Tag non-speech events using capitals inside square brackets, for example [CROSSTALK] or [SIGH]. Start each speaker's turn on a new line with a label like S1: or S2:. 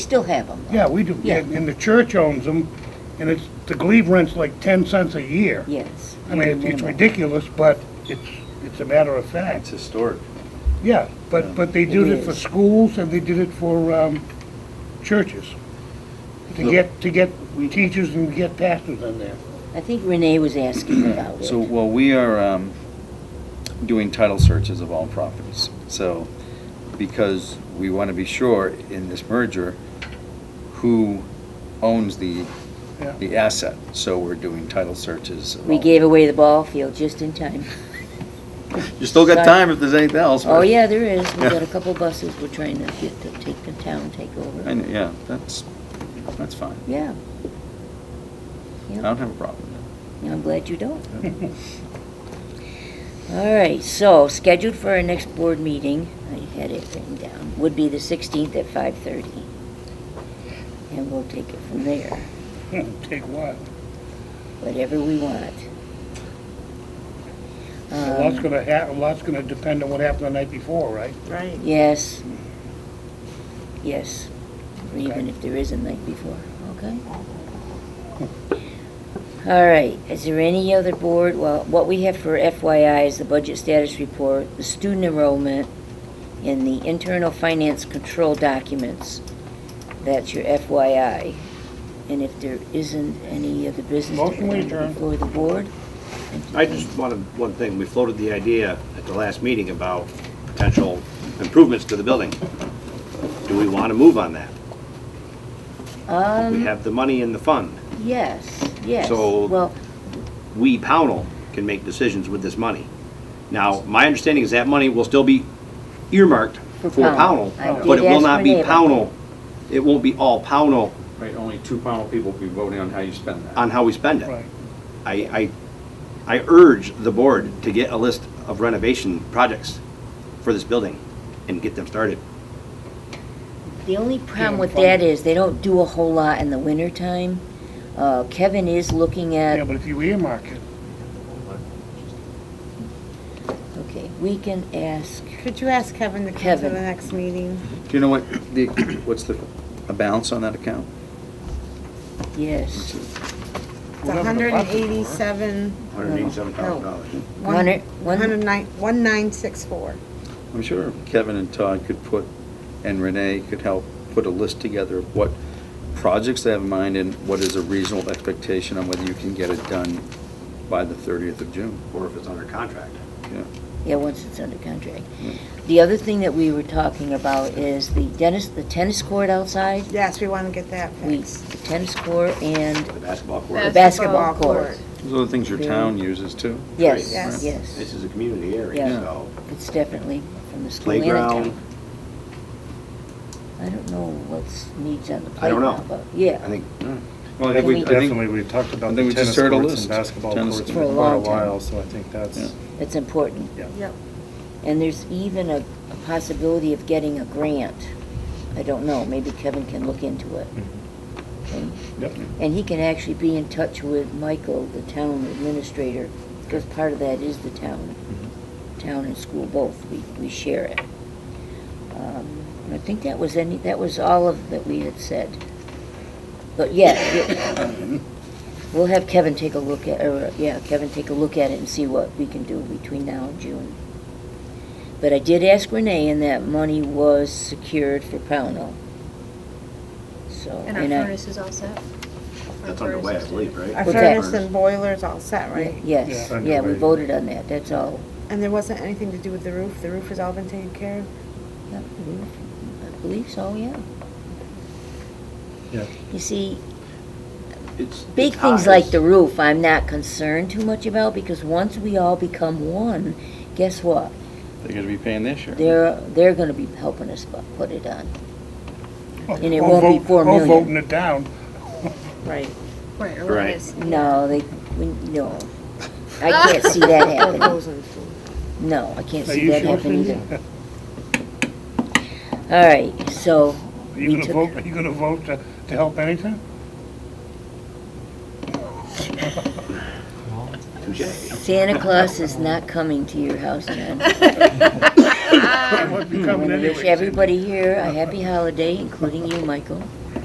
S1: Still have them.
S2: Yeah, we do,
S1: Yeah.
S2: and and the church owns them, and it's, the glebe rent's like 10 cents a year.
S1: Yes.
S2: I mean, it's- it's
S1: Minimal.
S2: ridiculous, but it's, it's a matter of
S3: It's
S2: fact.
S3: historic.
S2: Yeah, but, but they did
S1: It
S2: it for
S1: is.
S2: schools and they did it for um, churches, to get, to get teachers and get pastors in there.
S1: I think Renee was asking about
S3: [CLEARS THROAT]
S1: it.
S3: So, well, we are um, doing title searches of all properties. So, because we want to be sure in this merger, who owns the,
S2: [LAUGHS] Yeah.
S3: the asset. So we're doing title searches. of
S1: We
S3: all-
S1: gave away the ball field just in time.
S3: You still got
S1: Sorry.
S3: time if there's anything else.
S1: Oh,
S3: but-
S1: yeah, there is. We
S3: Yeah.
S1: got a couple buses we're trying to get to take the town, take
S3: I
S1: over.
S3: know, Yeah, that's, that's fine.
S1: Yeah.
S3: I
S1: Yeah.
S3: don't have a problem with
S1: Yeah, I'm glad you don't. All right, so scheduled for our next board meeting, I had it written down, would be the 16th at 5:30. And we'll take it from there,
S2: Take what?
S1: whatever we want.
S2: A lot's
S1: Um,
S2: gonna hap, a lot's gonna depend on what happened the night before, right?
S4: Right.
S1: Yes. Yes, or even
S2: Okay.
S1: if there is a night before, okay? All right, is there any other board, well, what we have for FYI is the budget status report, the student enrollment, and the internal finance control documents. That's your FYI. And if there isn't any other business to
S2: Motion we
S1: come
S2: adjourn.
S1: before the board? thank you.
S5: I just wanted, one thing, we floated the idea at the last meeting about potential improvements to the building. Do we want to move on that? We
S1: Um,
S5: have the money in the fund.
S1: yes, yes.
S5: So-
S1: Well,
S5: We, Pownell, can make decisions with this money. Now, my understanding is that money will still be earmarked
S1: For
S5: for
S1: Pownell.
S5: Pownell,
S1: I
S5: but it
S1: did
S5: will
S1: ask
S5: not be
S1: Renee about
S5: Pownell, it won't be all Pownell
S3: that. Right, only two panel people will be voting on how you spend that.
S5: on how we spend it.
S2: Right.
S5: I, I, I urge the board to get a list of renovation projects for this building and get them started.
S1: The only problem
S2: Yeah,
S1: with
S2: fine.
S1: that is they don't do a whole lot in the wintertime. Uh, Kevin is looking
S2: Yeah,
S1: at,
S2: but if you earmark it,
S1: okay, we can ask,
S4: Could you ask Kevin to come to
S1: Kevin.
S4: the next meeting?
S3: Do you know what, the, [COUGHS] what's the, a balance on that account?
S1: yes.
S4: It's
S2: Whatever the
S4: hundred and
S2: buses were.
S4: eighty-seven,
S5: $187,000.
S4: one,
S1: Hundred- one-
S4: one nine, one nine six four.
S3: I'm sure Kevin and Todd could put, and Renee could help put a list together of what projects they have in mind and what is a reasonable expectation on whether you can get it done by the 30th of June.
S5: or if it's under contract.
S3: Yeah.
S1: Yeah, once it's under contract. The other thing that we were talking about is the tennis, the tennis court outside.
S4: Yes, we want to get that
S1: We,
S4: fixed.
S1: the tennis court and
S5: The basketball
S1: the
S5: court.
S1: basketball
S4: Basketball
S1: court.
S4: court.
S3: Those are the things your town uses too.
S1: Yes,
S4: Yes.
S5: This
S1: yes.
S5: is a community
S1: Yeah.
S5: area, so
S1: It's definitely from the school and the
S5: playground,
S1: town. I don't know what's needs on the
S5: I don't know.
S1: playground, but, yeah.
S5: I think,
S6: Well, I think we
S1: Can we-
S6: definitely, we've talked
S3: I
S6: about
S3: think
S6: the
S3: we just
S6: tennis
S3: heard a
S6: courts
S3: list.
S6: and basketball
S3: Tennis-
S6: courts
S1: For a
S6: for quite a
S1: long time.
S6: while, so I think
S3: Yeah.
S6: that's,
S1: It's important.
S6: Yeah.
S4: Yep.
S1: And there's even a a possibility of getting a grant. I don't know, maybe Kevin can look into it. Okay?
S2: Yep.
S1: And he can actually be in touch with Michael, the town administrator, because part of that is the town, town and school both, we, we share it. Um, and I think that was any, that was all of, that we had said. But yeah, yeah, we'll have Kevin take a look at, or, yeah, Kevin take a look at it and see what we can do between now and June. But I did ask Renee, and that money was secured for Pownell. So.
S7: And our
S1: I-
S7: furnace is all set? Our
S5: that's underway, I
S7: furnace is
S5: believe,
S7: today.
S4: Our
S1: What's
S5: right?
S1: that?
S4: furnace and boiler's all set,
S1: Yeah,
S4: right?
S1: Yes,
S2: Yeah.
S1: yeah, we
S2: Underway.
S1: voted on that, that's all.
S4: And there wasn't anything to do with the roof? The roof has all been taken care of?
S1: Yeah, I believe so, yeah.
S6: yeah.
S1: You see,
S5: It's-
S1: big
S5: it's
S1: things
S5: high.
S1: like the roof, I'm not concerned too much about, because once we all become one, guess what?
S3: They're going to be paying this year.
S1: They're, they're gonna be helping us bu- put it on. And it
S2: Or
S1: won't be
S2: vote-
S1: four million.
S2: Or voting it down.
S4: Right.
S7: Right, or
S5: Right.
S7: it is.
S1: No, they, we, no. I can't see that happening.
S4: goes in school.
S1: No, I can't
S2: Are
S1: see
S2: [LAUGHS] you
S1: that
S2: sure?
S1: happening either. All right, so,
S2: Are you
S1: We
S2: gonna
S1: took-
S2: vote, are you gonna vote to, to
S1: [LAUGHS]
S2: help anything?
S5: Touche.
S1: Santa Claus is not coming to your house, John.
S2: That would be coming
S1: I
S2: anyway.
S1: wish everybody here a happy holiday, including you, Michael.